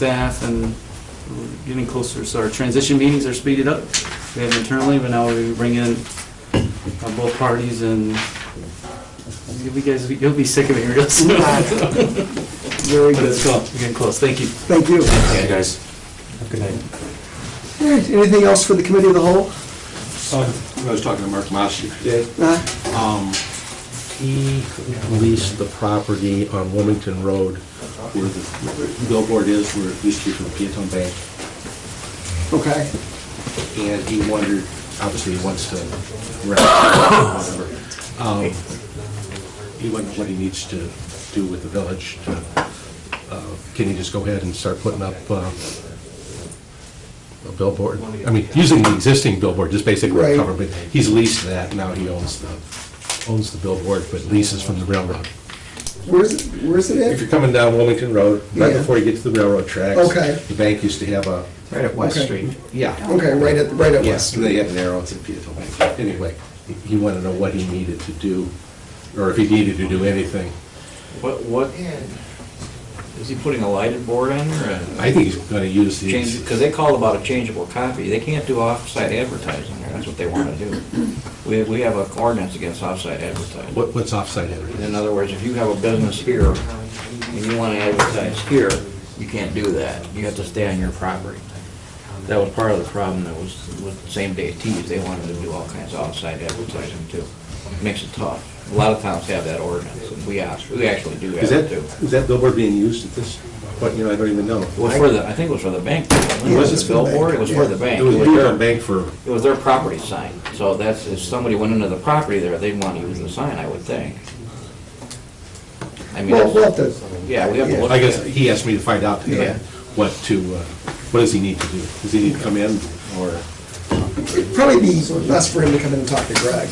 staff and we're getting closer, so our transition meetings are speeded up. We have internally, but now we bring in uh, both parties and you'll be guys, you'll be sick of it real soon. Very But good. it's cool, we're getting close, thank you. Thank you. Hey, guys. Good night. All right, Anything else for the committee of the whole? Oh, I was talking to Mark Massey. Uh, Um, He leased the property on Wilmington Road where the where the billboard is, where it used to be for Peatone Bank. Okay. And he wondered, obviously he wants to rent, whatever. Um, He wondered what he needs to do with the village. to, uh, Can he just go ahead and start putting up uh, a billboard? I mean, using the existing billboard, just basically Right. a cover, but he's leased that, now he owns the, owns the billboard, but leases from the railroad. Where's, it- where's If it at? you're coming down Wilmington Road, right Yeah. before you get to the railroad tracks. Okay. The bank used to have a, Right at West Okay. Street. yeah. Okay, right at, right at Yes, West. they have an arrow, it's a beautiful bank. Anyway, he- he wanted to know what he needed to do, or if he needed to do anything. What, what, is he putting a lighted board on there and I think he's gonna use change, these, because they call about a changeable copy. They can't do off-site advertising there, that's what they want to do. We, we have an ordinance against off-site advertising. what, what's offsite In advertising? other words, if you have a business here and you want to advertise here, you can't do that. You have to stay on your property. That was part of the problem that was, with same-day tees. They wanted to do all kinds of off-site advertising too. Makes it tough. A lot of towns have that ordinance, and we act- we actually do have Is that, it too. is that billboard being used at this point, you know, I don't even know. It was for the, I think it was for the bank. It Yeah, it's wasn't for a the billboard, bank, it was for yeah. the bank. It was a Huron bank for, It was their property sign. So that's, if somebody went into the property there, they'd want to use the sign, I would think. I mean, Well, we'll have to, yeah, we have to look. I guess, at it. he asked me to find out tonight Yeah. what to, uh, what does he need to do? Does he need to come in, or? it'd probably be best for him to come in and talk to Greg.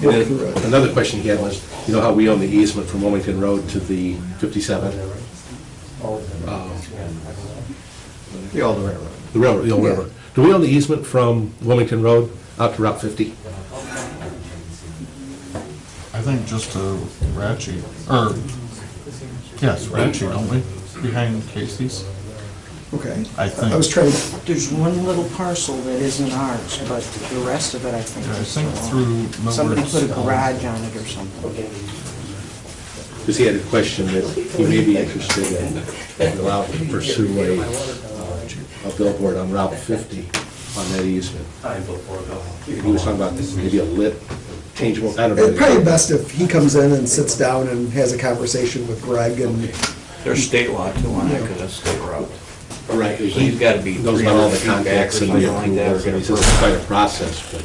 And then Another question he had was, you know how we own the easement from Wilmington Road to the 57? Um, The old railroad. The railroad, the old Yeah. railroad. Do we own the easement from Wilmington Road out to Route 50? I think just to Ratchy, or, yes, Ratchy, don't we? Behind Casey's? Okay. I think. I was trying, to- There's one little parcel that isn't ours, but the rest of it, I think. Yeah, I is think their own. through Somebody Millard's, put a um, garage on it or something. Because he had a question that he may be interested in, and allow to pursue a, uh, a billboard on Route 50 on that easement. He was talking about this, maybe a lit, changeable, I don't know. it'd probably be best if he comes in and sits down and has a conversation with Greg and, There's state law too on that, because that's state route. Right. So he's gotta be Knows about all 300 the feet back contacts or and the something like that, approvals, or and he says it's quite a process, but,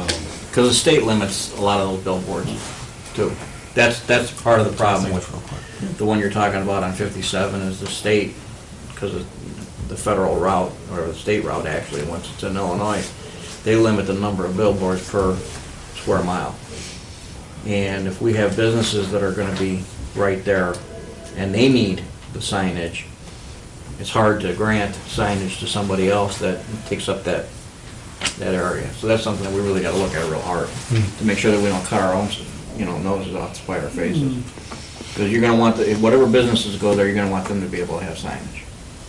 um, Because the state limits a lot of those billboards too. That's, that's part of the problem with the one you're talking about on 57 is the state, because the federal route, or the state route actually, once it's in Illinois, they limit the number of billboards per square mile. And if we have businesses that are going to be right there and they need the signage, it's hard to grant signage to somebody else that takes up that that area. So that's something that we really gotta look at real hard, to make sure that we don't cut our own, you know, noses off to spite our faces. Because you're gonna want, the- whatever businesses go there, you're gonna want them to be able to have signage.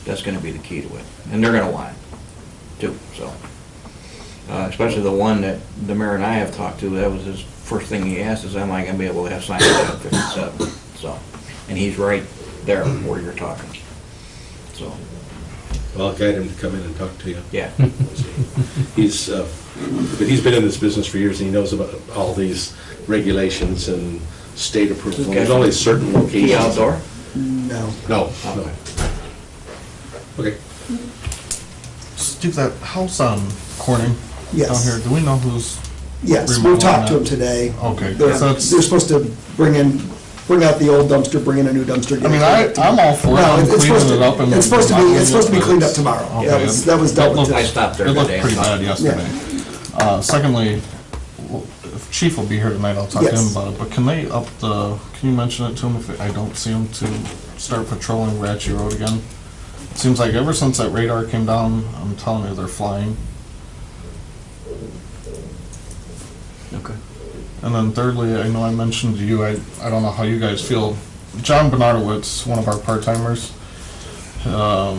That's gonna be the key to it, and they're gonna want it, too, so. Uh, especially the one that the mayor and I have talked to, that was his first thing he asked, is am I gonna be able to have signage on fifty-seven? So, and he's right there where you're talking, so, I'll guide him to come in and talk to you. yeah. He's, uh, but he's been in this business for years, and he knows about all these regulations and state approval. Okay. There's only certain locations. Key outdoor? no. No, no. Okay. Steve, that house on Corning down Yes. here, do we know who's? Yes, we'll remodeling talk to that? him today. Okay, They're, 'cause that's- they're supposed to bring in, bring out the old dumpster, bring in a new dumpster. I mean, I, I'm all for No, it, it's supposed cleaning to- it up and. it's supposed to be- it's supposed to be cleaned up mopping it, but tomorrow. it's- That okay, was- that was dealt with looked- today. I stopped there It looked today and pretty talked. bad yesterday. Uh, secondly, well, if Chief will be here tonight, I'll talk to him Yes. about it, but can they up the, can you mention it to him if I don't see him to start patrolling Ratchy Road again? Seems like ever since that radar came down, I'm telling you, they're flying. Okay. And then thirdly, I know I mentioned to you, I, I don't know how you guys feel, John Bernardowitz, one of our part-timers, Um,